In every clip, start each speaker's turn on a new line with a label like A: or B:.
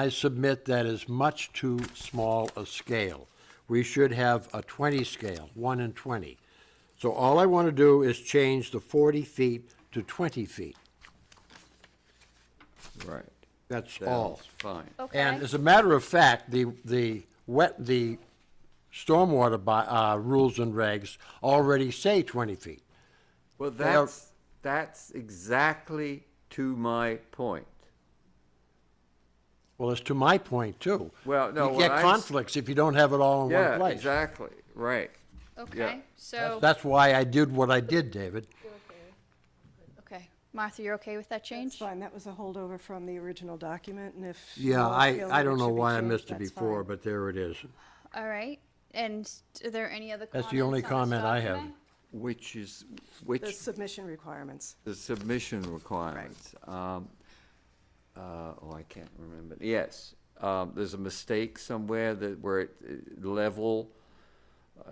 A: I submit that is much too small a scale. We should have a 20 scale, 1 and 20. So all I want to do is change the 40 feet to 20 feet.
B: Right.
A: That's
B: Sounds
A: all.
B: Fine.
A: And
C: Okay,
A: as a matter of fact, the, the wet, the stormwater by, uh, rules and regs already say 20 feet.
B: Well,
A: are-
B: that's, that's exactly to my point.
A: Well, it's to my point, too.
B: Well, no,
A: You
B: what I
A: get
B: s-
A: conflicts if you don't have it all in one
B: Yeah,
A: place.
B: exactly, right.
C: okay, so,
A: That's why I did what I did, David.
C: okay. Martha, you're okay with that
D: That's
C: change?
D: fine, that was a holdover from the original document, and if. you
A: Yeah,
D: all
A: I,
D: feel that
A: I don't
D: should
A: know
D: be
A: why I
D: changed,
A: missed it
D: that's
A: before,
D: fine.
A: but there it is.
C: All right, and are there any other comments?
A: That's the only
C: on this
A: comment I have.
C: document?
B: Which is,
D: The
B: which,
D: submission requirements.
B: the submission requirements. Um, uh, oh, I can't remember. Yes, um, there's a mistake somewhere that where it, uh, level,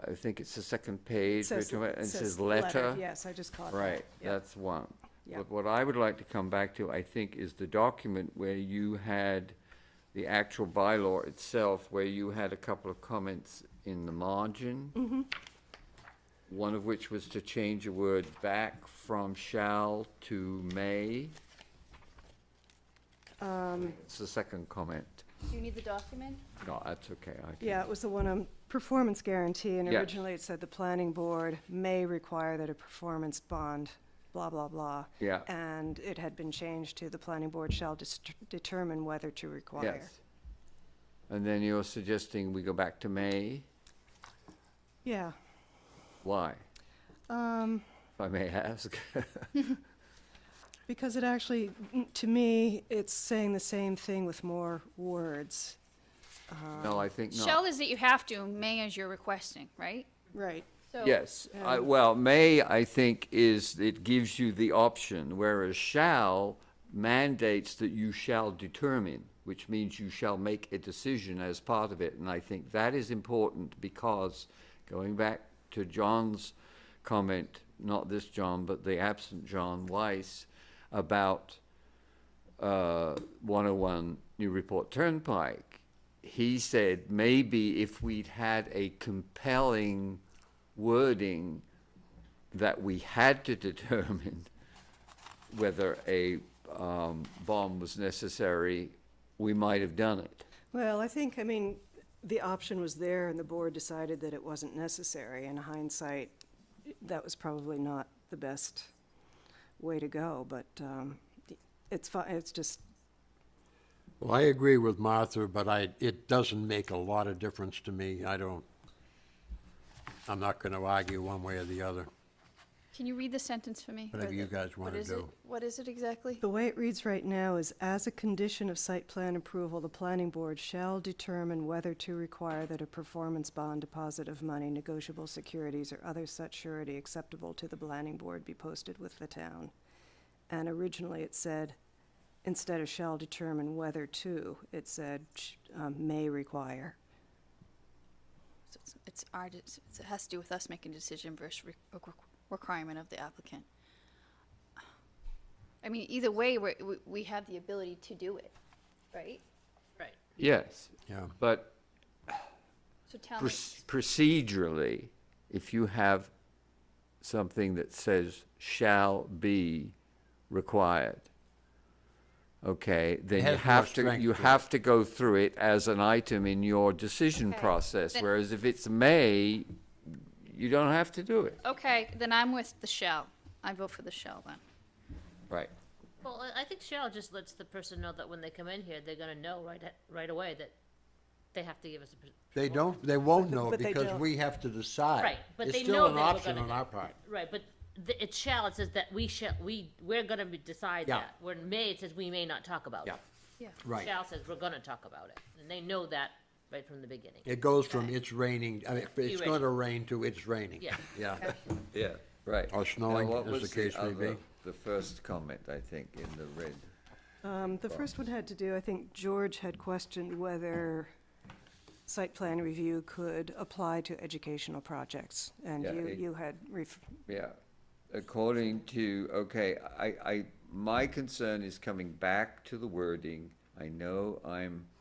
B: I think it's the second
D: It
B: page. we're
D: says-
B: talking about-
D: it
B: and It
D: says
B: says letter.
D: Yes, I just caught that.
B: Right,
D: yeah.
B: that's one.
D: Yeah.
B: But what I would like to come back to, I think, is the document where you had the actual bylaw itself, where you had a couple of comments in the margin.
D: Mm-hmm.
B: One of which was to change a word back from shall to may.
D: Um.
B: It's the second comment.
C: Do you need the document?
B: No, that's okay. I can-
D: Yeah, it was the one on performance guarantee, and
B: Yes.
D: originally it said the planning board may require that a performance bond, blah, blah, blah.
B: Yeah.
D: And it had been changed to the planning board shall dis- determine whether to require.
B: Yes. And then you're suggesting we go back to may?
D: Yeah,
B: Why,
D: um,
B: if I may ask?
D: because it actually, to me, it's saying the same thing with more words.
B: No, I think not.
C: Shell is that you have to, may as you're requesting, right?
D: Right.
C: So-
B: Yes, I, well, may, I think, is, it gives you the option, whereas shall mandates that you shall determine, which means you shall make a decision as part of it, and I think that is important because, going back to John's comment, not this John, but the absent John Weiss, about uh, 101 New Report Turnpike, he said maybe if we'd had a compelling wording that we had to determine whether a um, bomb was necessary, we might have done it.
D: Well, I think, I mean, the option was there, and the board decided that it wasn't necessary. In hindsight, that was probably not the best way to go, but um, it's fine, it's just,
A: Well, I agree with Martha, but I, it doesn't make a lot of difference to me. I don't, I'm not going to argue one way or the other.
C: Can you read the sentence for me? Or
A: Whatever you
C: the-
A: guys
C: what
A: wanna
C: is it-
A: do.
C: What is it exactly?
D: the way it reads right now is, as a condition of site plan approval, the planning board shall determine whether to require that a performance bond deposit of money, negotiable securities, or other such surety acceptable to the planning board be posted with the town. And originally it said, instead of shall determine whether to, it said sh- um, may require.
C: So it's- It's our, de- it's- it has to do with us making a decision versus re- re- re- requirement of the applicant. I mean, either way, we're, we, we have the ability to do it, right? Right.
B: Yes,
A: Yeah.
B: but
C: So tell
B: proc-
C: me,
B: procedurally, if you have something that says shall be required, okay, then you
A: has more
B: have to,
A: strength
B: you
A: to it.
B: have to go through it as an item in your decision
C: Okay,
B: process,
C: then-
B: whereas if it's may, you don't have to do it.
C: okay, then I'm with the shell. I vote for the shell then.
B: Right.
E: Well, I- I think Cheryl just lets the person know that when they come in here, they're gonna know right, a- right away that they have to give us a. pres-
A: They don't, they won't know
D: But they
A: because
D: don't.
A: we have to decide.
E: Right, but they
A: It's still
E: know
A: an
E: that we're
A: option
E: gonna
A: on
E: do-
A: our part.
E: Right, but the, it shall, it says that we shall, we, we're gonna be- decide
A: Yeah.
E: that. Where in may, it says we may not talk about it.
B: Yeah.
C: Yeah.
A: Right.
E: Shall says we're gonna talk about it, and they know that right from the beginning.
A: It goes from it's raining, I mean, it's
E: Be
A: going to rain to it's raining.
E: Yeah.
A: Yeah.
B: Yeah, right.
A: Or snowing,
B: Now, what
A: as
B: was
A: the case may be.
B: other- The first comment, I think, in the red.
D: Um, The first one had to do, I think George had questioned whether site plan review could apply to educational projects. And
B: Yeah,
D: you,
B: it-
D: you had ref-
B: Yeah, according to, okay, I, I, my concern is coming back to the wording. I know I'm